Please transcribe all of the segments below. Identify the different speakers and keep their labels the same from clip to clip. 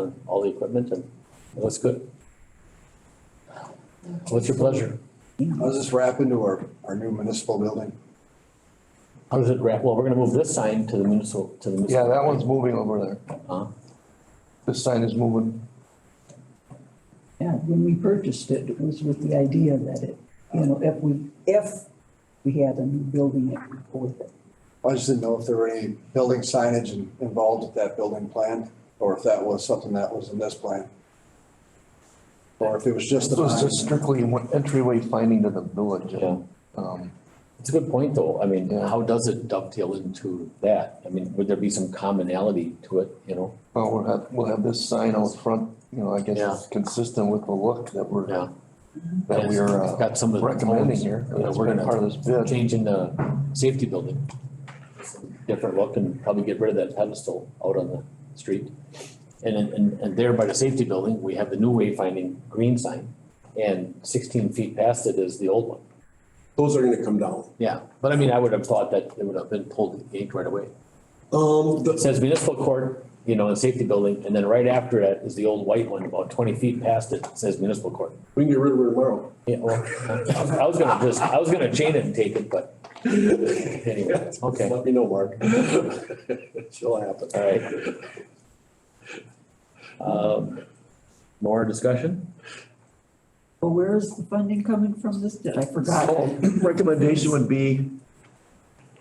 Speaker 1: on all the equipment and it looks good. What's your pleasure?
Speaker 2: How's this wrap into our, our new municipal building?
Speaker 1: How does it wrap? Well, we're gonna move this sign to the municipal, to the
Speaker 3: Yeah,
Speaker 1: municipal.
Speaker 3: that one's moving over there.
Speaker 1: Huh?
Speaker 3: This sign is moving.
Speaker 4: Yeah, when we purchased it, it was with the idea that it, you know, if we, if we had a new building, it would go with it.
Speaker 2: I just didn't know if there were any building signage in- involved with that building plan, or if that was something that was in this plan. Or if it was just
Speaker 3: This
Speaker 2: the.
Speaker 3: was just strictly one entryway finding to the village.
Speaker 1: Yeah,
Speaker 3: Um,
Speaker 1: it's a good point though. I mean,
Speaker 3: Yeah.
Speaker 1: how does it dovetail into that? I mean, would there be some commonality to it, you know?
Speaker 3: well, we'll have, we'll have this sign out front, you know, I guess
Speaker 1: Yeah.
Speaker 3: it's consistent with the look that we're,
Speaker 1: Yeah.
Speaker 3: that we are uh,
Speaker 1: Got some of the.
Speaker 3: recommending
Speaker 1: tones.
Speaker 3: here.
Speaker 1: Yeah,
Speaker 3: That's
Speaker 1: we're
Speaker 3: been part
Speaker 1: gonna
Speaker 3: of this bid.
Speaker 1: change in the safety building. Different look and probably get rid of that pedestal out on the street. And then, and, and there by the safety building, we have the new wayfinding green sign. And sixteen feet past it is the old one.
Speaker 5: Those are gonna come down.
Speaker 1: Yeah, but I mean, I would have thought that it would have been pulled to the gate right away.
Speaker 5: Um,
Speaker 1: It
Speaker 5: the,
Speaker 1: says municipal court, you know, and safety building, and then right after that is the old white one, about twenty feet past it, says municipal court.
Speaker 5: we can get rid of it tomorrow.
Speaker 1: Yeah, well, I was gonna just, I was gonna chain it and take it, but anyway, okay,
Speaker 5: Let me know, Mark. It'll happen.
Speaker 1: all right. Um, more discussion?
Speaker 4: Well, where is the funding coming from this? Did I forgot?
Speaker 3: So, Recommendation would be,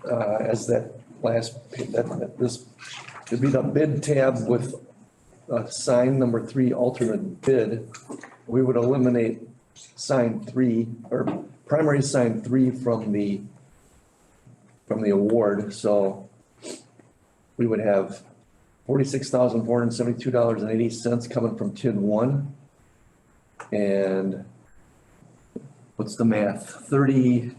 Speaker 3: uh, as that last, that, that this, it'd be the bid tab with, uh, sign number three, alternate bid. We would eliminate sign three, or primary sign three from the, from the award, so we would have forty-six thousand, four hundred and seventy-two dollars and eighty cents coming from TID one. And what's the math, thirty.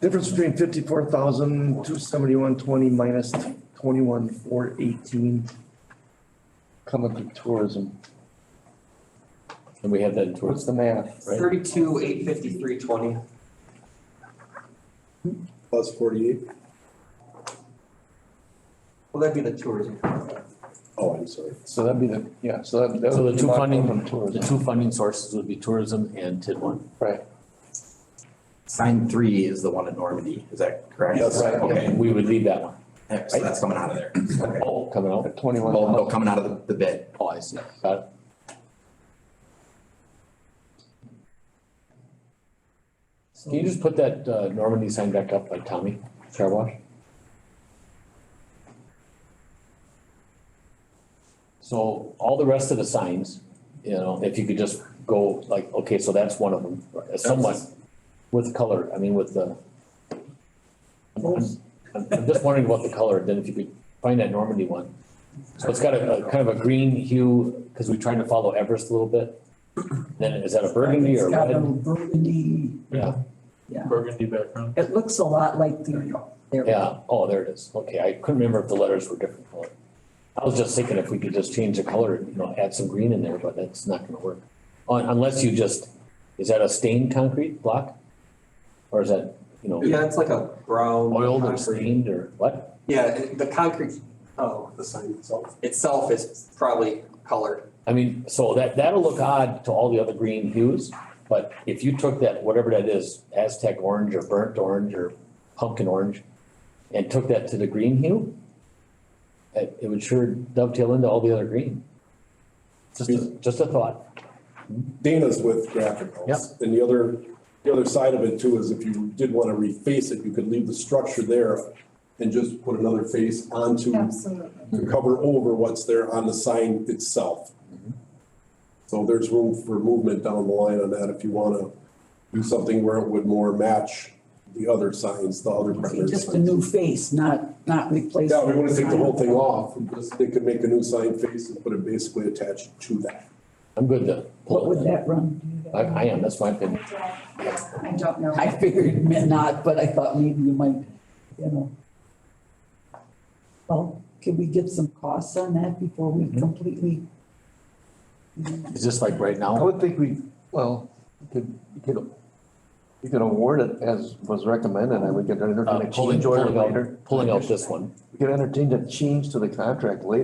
Speaker 3: Difference between fifty-four thousand, two seventy-one, twenty minus twenty-one, four eighteen. Coming through tourism,
Speaker 1: And we have that towards,
Speaker 3: what's the math?
Speaker 1: Right.
Speaker 6: Thirty-two, eight fifty-three, twenty.
Speaker 5: Plus forty-eight.
Speaker 6: Well, that'd be the tourism.
Speaker 5: Oh, I'm sorry.
Speaker 3: So that'd be the, yeah, so that. that
Speaker 1: So the
Speaker 3: would
Speaker 1: two
Speaker 3: come
Speaker 1: funding-
Speaker 3: From
Speaker 1: the
Speaker 3: tourism,
Speaker 1: two funding sources would be tourism and TID one.
Speaker 3: right,
Speaker 7: Sign three is the one in Normandy, is that correct?
Speaker 5: Yes.
Speaker 3: Right.
Speaker 7: Okay,
Speaker 1: And we would leave that one.
Speaker 7: Yeah, so that's coming out of there. Okay.
Speaker 1: Oh, coming out,
Speaker 3: at twenty-one.
Speaker 7: Well, no, coming out of the, the bid.
Speaker 1: oh, I see, got it. Can you just put that uh, Normandy sign back up by Tommy Car Wash? So all the rest of the signs, you know, if you could just go like, okay, so that's one of them, somewhat with color, I mean, with the. I'm- I'm I'm just wondering about the color, then if you could find that Normandy one. So it's got a, a kind of a green hue, because we tried to follow Everest a little bit. Then is that a burgundy or
Speaker 4: It's got a
Speaker 1: red?
Speaker 4: little burgundy,
Speaker 1: Yeah.
Speaker 4: yeah.
Speaker 8: burgundy background.
Speaker 4: It looks a lot like the, there.
Speaker 1: Yeah, oh, there it is. Okay, I couldn't remember if the letters were different color. I was just thinking if we could just change the color, you know, add some green in there, but that's not gonna work. Un- Unless you just, is that a stained concrete block? Or is that, you know,
Speaker 6: Yeah, it's like a brown.
Speaker 1: oiled or
Speaker 6: concrete.
Speaker 1: stained or what?
Speaker 6: Yeah, it- the concrete, oh, the sign itself, itself is probably colored.
Speaker 1: I mean, so that, that'll look odd to all the other green hues, but if you took that, whatever that is, Aztec orange or burnt orange or pumpkin orange, and took that to the green hue, it, it would sure dovetail into all the other green. Just, a- just a thought.
Speaker 5: Dana's with graphic notes. And the other, the other side of it too is if you did wanna reface it, you could leave the structure there and just put another face onto,
Speaker 9: Absolutely.
Speaker 5: to cover over what's there on the sign itself. So there's room for movement down the line on that if you wanna do something where it would more match the other signs, the other primary signs.
Speaker 4: Just a new face, not, not replacing.
Speaker 5: Yeah, we wanna take the whole thing off, and just- they could make a new sign face and put it basically attached to that.
Speaker 1: I'm good to
Speaker 4: What
Speaker 1: pull
Speaker 4: would
Speaker 1: it.
Speaker 4: that run?
Speaker 1: I, I am, that's my
Speaker 9: I
Speaker 1: opinion.
Speaker 9: don't- yeah, I don't know.
Speaker 4: I figured meant not, but I thought maybe you might, you know. Well, can we get some costs on that before we completely?
Speaker 1: It's just like right
Speaker 3: I
Speaker 1: now,
Speaker 3: would think we, well, you could, you could, you could award it as was recommended, I would get
Speaker 1: uh,
Speaker 3: entertain a
Speaker 1: pulling,
Speaker 3: change order
Speaker 1: pulling
Speaker 3: later.
Speaker 1: out, pulling out this one.
Speaker 3: We could entertain a change to the contract later.